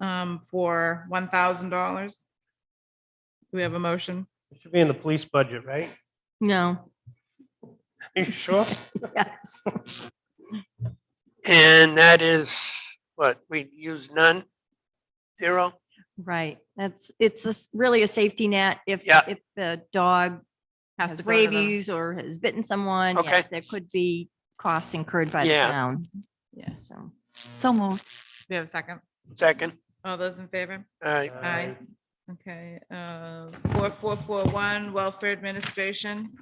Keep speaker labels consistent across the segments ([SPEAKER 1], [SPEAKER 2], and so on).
[SPEAKER 1] um, for one thousand dollars. Do we have a motion?
[SPEAKER 2] It should be in the police budget, right?
[SPEAKER 3] No,
[SPEAKER 2] Are you sure?
[SPEAKER 3] yes,
[SPEAKER 4] And that is what we use none? Zero?
[SPEAKER 3] right. That's, it's a s- really a safety net if,
[SPEAKER 4] Yeah.
[SPEAKER 3] if the dog
[SPEAKER 1] Has
[SPEAKER 3] has
[SPEAKER 1] to go to the-
[SPEAKER 3] rabies or has bitten someone.
[SPEAKER 4] Okay.
[SPEAKER 3] yes, There could be costs incurred by the
[SPEAKER 4] Yeah.
[SPEAKER 3] town.
[SPEAKER 1] Yeah.
[SPEAKER 3] So,
[SPEAKER 5] So moved.
[SPEAKER 1] Do we have a second?
[SPEAKER 4] Second?
[SPEAKER 1] All those in favor?
[SPEAKER 4] All right.
[SPEAKER 1] Aye. Okay, uh, four, four, four, one, Welfare Administration.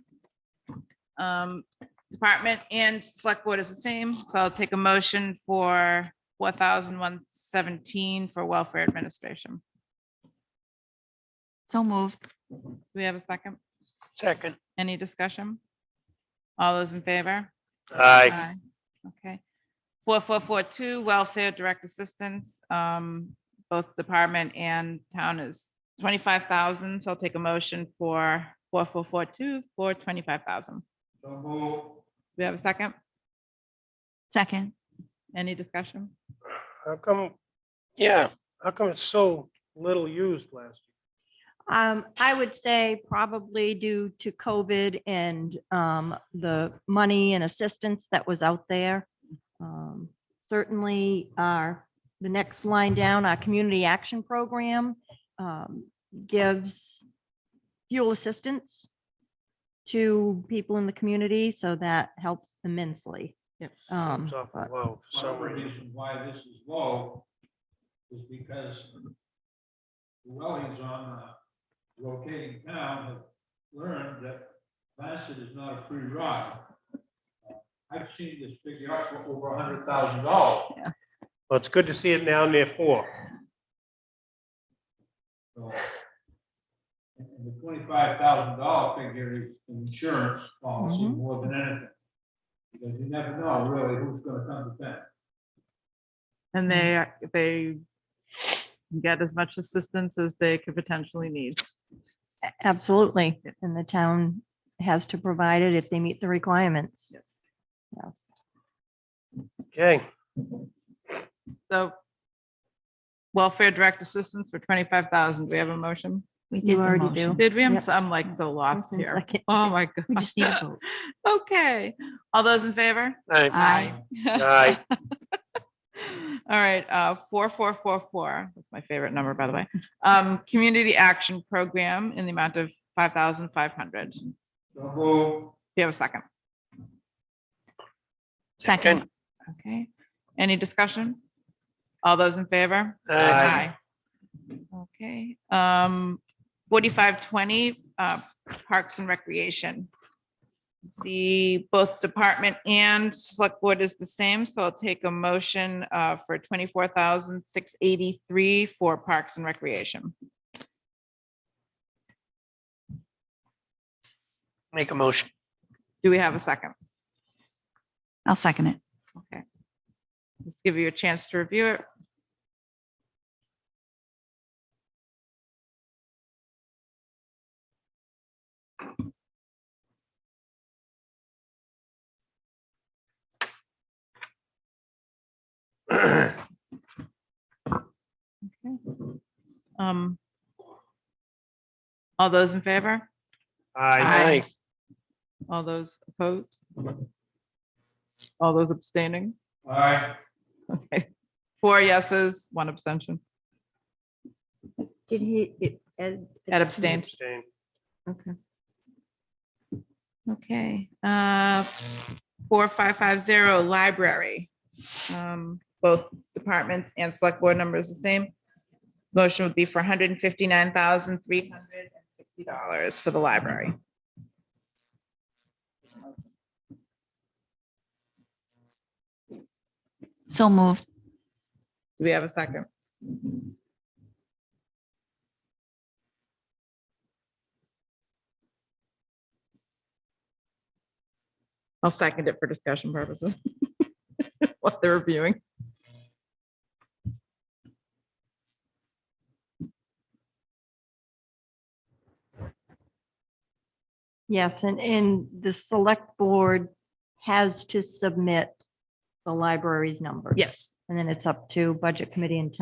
[SPEAKER 1] Um, Department and Select Board is the same, so I'll take a motion for four thousand one seventeen for Welfare Administration.
[SPEAKER 5] So moved.
[SPEAKER 1] Do we have a second?
[SPEAKER 4] Second?
[SPEAKER 1] Any discussion? All those in favor?
[SPEAKER 4] Aye.
[SPEAKER 1] Aye. Okay. Four, four, four, two, welfare direct assistance, um, both department and town is twenty-five thousand, so I'll take a motion for four, four, four, two, for twenty-five thousand. Do we have a second?
[SPEAKER 5] Second.
[SPEAKER 1] Any discussion?
[SPEAKER 2] How come,
[SPEAKER 4] Yeah,
[SPEAKER 2] how come it's so little used last
[SPEAKER 3] um, I would say probably due to COVID and, um, the money and assistance that was out there. Um, certainly our, the next line down, our community action program, um, gives fuel assistance to people in the community, so that helps immensely.
[SPEAKER 1] Yep.
[SPEAKER 2] year?
[SPEAKER 3] Um,
[SPEAKER 2] It's awful
[SPEAKER 3] but-
[SPEAKER 2] low for
[SPEAKER 6] One
[SPEAKER 2] some
[SPEAKER 6] of the
[SPEAKER 2] reason.
[SPEAKER 6] reasons why this is low is because dwellings on the rotating town have learned that Bassett is not a free ride. Uh, I've seen this figure up for over a hundred thousand dollars.
[SPEAKER 2] Well, it's good to see it now near four.
[SPEAKER 6] So, And and the twenty-five thousand dollar figure is an insurance policy
[SPEAKER 3] Mhm.
[SPEAKER 6] more than anything. Because you never know really who's gonna come to town.
[SPEAKER 1] And they, they get as much assistance as they could potentially need.
[SPEAKER 3] Absolutely. And the town has to provide it if they meet the requirements. Yes.
[SPEAKER 2] Okay,
[SPEAKER 1] So welfare direct assistance for twenty-five thousand, do we have a motion?
[SPEAKER 5] We
[SPEAKER 3] You
[SPEAKER 5] did the
[SPEAKER 3] already
[SPEAKER 5] motion.
[SPEAKER 3] do.
[SPEAKER 1] Did we? I'm
[SPEAKER 3] Yep.
[SPEAKER 1] so- I'm like so lost
[SPEAKER 3] One
[SPEAKER 1] here.
[SPEAKER 3] second.
[SPEAKER 1] Oh, my God.
[SPEAKER 5] We just need a vote.
[SPEAKER 1] Okay, all those in favor?
[SPEAKER 4] aye,
[SPEAKER 5] Aye.
[SPEAKER 4] aye,
[SPEAKER 1] All right, uh, four, four, four, four, that's my favorite number, by the way. Um, Community Action Program in the amount of five thousand five hundred. Do
[SPEAKER 6] So move.
[SPEAKER 1] you have a second?
[SPEAKER 5] Second.
[SPEAKER 1] Okay, any discussion? All those in favor?
[SPEAKER 4] aye,
[SPEAKER 1] Aye. Okay, um, forty-five twenty, uh, Parks and Recreation. The both department and select board is the same, so I'll take a motion, uh, for twenty-four thousand six eighty-three for Parks and Recreation.
[SPEAKER 4] make a motion.
[SPEAKER 1] Do we have a second?
[SPEAKER 5] I'll second it.
[SPEAKER 1] Okay. Let's give you a chance to review it. Okay. Um. All those in favor?
[SPEAKER 2] aye.
[SPEAKER 1] Aye. All those opposed? All those abstaining?
[SPEAKER 6] All right.
[SPEAKER 1] Okay. Four yeses, one abstention.
[SPEAKER 3] Did he? it- Ed
[SPEAKER 1] Ed abstained.
[SPEAKER 2] Abstain.
[SPEAKER 1] Okay. Okay, uh, four, five, five, zero, library. Um, both departments and select board numbers the same. Motion would be for hundred and fifty-nine thousand, three hundred and sixty dollars for the library.
[SPEAKER 5] So moved.
[SPEAKER 1] Do we have a second? I'll second it for discussion purposes. What they're reviewing.
[SPEAKER 3] Yes, and, and the select board has to submit the library's numbers.
[SPEAKER 1] Yes.
[SPEAKER 3] And then it's up to budget committee and town